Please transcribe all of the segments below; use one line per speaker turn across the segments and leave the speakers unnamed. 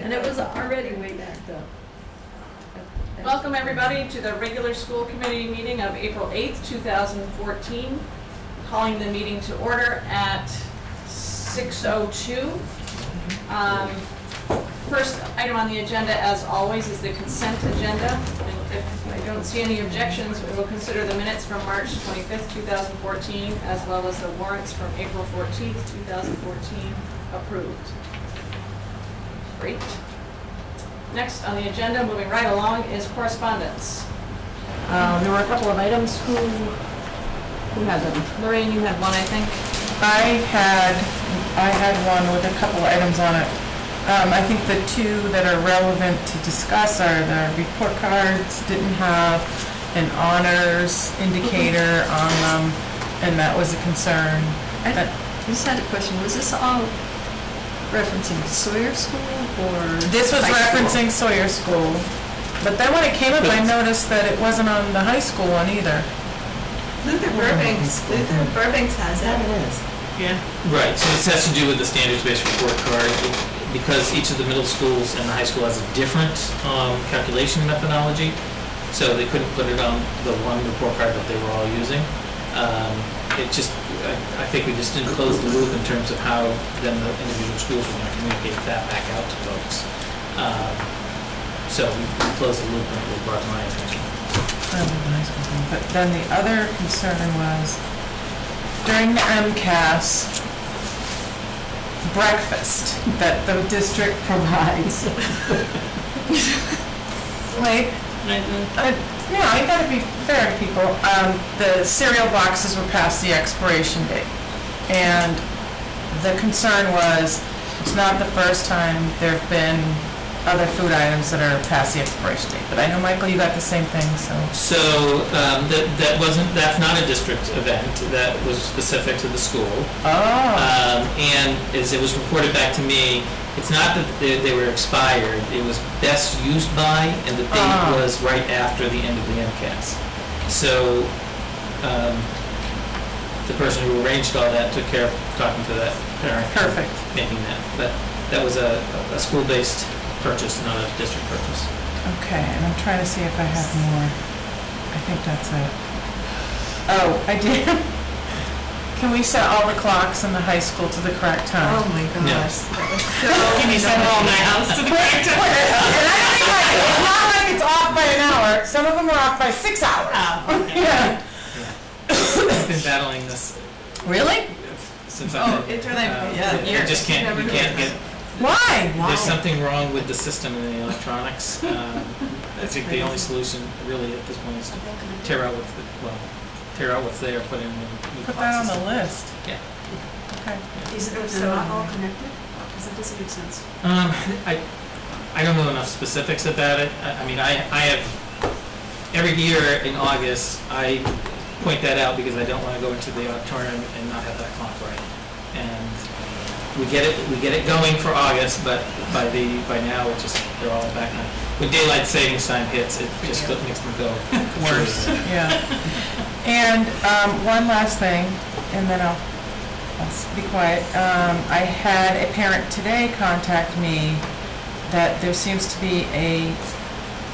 And it was already way backed up.
Welcome, everybody, to the regular school committee meeting of April 8th, 2014. Calling the meeting to order at 6:02. Um, First item on the agenda, as always, is the consent agenda. And If I don't see any objections, we will consider the minutes from March 25th, 2014, as well as the warrants from April 14th, 2014 approved. Great. Next on the agenda, moving right along, is correspondence.
Um, There were a couple of items. Who, who had them?
Lorraine, you had one, I think.
I had, I had one with a couple items on it. Um, I think the two that are relevant to discuss are the report cards didn't have an honors indicator on them, and that was a concern.
I just had a question, was this all referencing Sawyer School or?
This was
high school?
referencing Sawyer School, but then when it came up, I noticed that it wasn't on the high school one either.
Luther Burbanks, Luther Burbanks has it.
Yeah.
Right, so this has to do with the standards-based report card, because each of the middle schools and the high school has a different um, calculation methodology, so they couldn't put it on the one report card that they were all using. Um, It just, I I think we just didn't close the loop in terms of how then the individual schools were going to communicate that back out to folks. Um, So we we closed the loop and it was brought to my attention.
That was a nice one. But then the other concern was during the MCAS breakfast that the district provides. Like, I- you know, I gotta be fair to people, um, the cereal boxes were past the expiration date. And the concern was, it's not the first time there've been other food items that are past the expiration date. But I know, Michael, you got the same thing, so.
So um, that that wasn't, that's not a district event, that was specific to the school.
Oh,
Um, and as it was reported back to me, it's not that they, they were expired, it was best used by, and the date
Ah.
was right after the end of the MCAS. So, um, the person who arranged all that took care of talking to that parent.
perfect.
Making that, but that was a, a school-based purchase, not a district purchase.
Okay, and I'm trying to see if I have more. I think that's it. Oh, I did. Can we set all the clocks in the high school to the correct time?
Oh my gosh. that was so-
Can you set all my house to the correct time? And I don't think like, it's not like it's off by an hour. Some of them are off by six hours. Yeah.
I've been battling this
Really?
since I've.
Oh, it's really- yeah,
I just can't, you
years.
can't get,
Why?
There's something wrong with the system in the electronics. Um, I think the only solution really at this point is to tear out what's, the- well, tear out what's there, put in new new
Put that on
boxes.
the list.
Yeah.
Okay.
Is it,
Mm-hmm.
so not all connected? Because that doesn't make sense.
Um, I, I don't know enough specifics about it. I, I mean, I, I have, every year in August, I point that out because I don't want to go into the auditorium and not have that clock right. And we get it, we get it going for August, but by the, by now, it just, they're all back on. When daylight savings time hits, it just go- makes them go worse.
Yeah. And um, one last thing, and then I'll, I'll s- be quiet. Um, I had a parent today contact me that there seems to be a,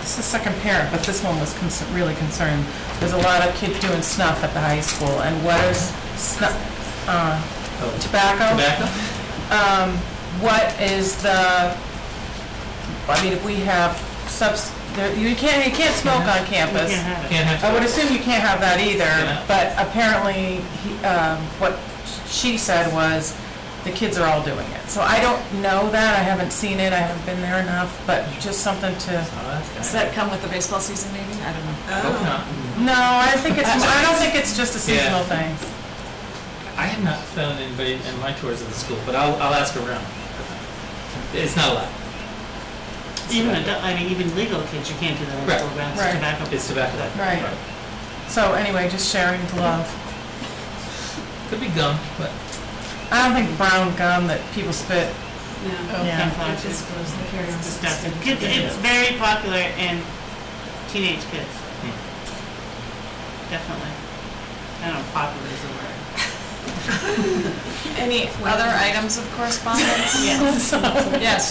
this is second parent, but this one was cons- really concerned. There's a lot of kids doing snuff at the high school, and what is snuff, uh,
Oh,
tobacco?
Tobacco?
um, what is the, I mean, if we have subs, there- you can't, you can't smoke on campus.
Can't have
I would
tobacco.
assume you can't have that either,
Yeah.
but apparently, he- um, what she said was, the kids are all doing it. So I don't know that, I haven't seen it, I haven't been there enough, but just something to,
Oh, that's kinda-
Does that come with the baseball season maybe? I don't know.
Oh.
Hope not.
no, I think it's, I don't think it's just a
Yeah.
seasonal thing.
I have not found anybody in my tours of the school, but I'll, I'll ask around. It's not allowed.
Even, adult- I mean, even legal kids, you can't do that on
Right,
school grounds,
right.
it's tobacco.
It's tobacco.
Right. So anyway, just sharing the love.
Could be gum, but
I don't think brown gum that people spit, oh,
Yeah.
Oh.
yeah.
Camouflage,
Just
It's
goes to carry on.
disgusting. Kids, it's very popular in teenage kids.
Hmm.
Definitely. I don't know, popular is the word.
Any other items of correspondence?
Yes.
Yes,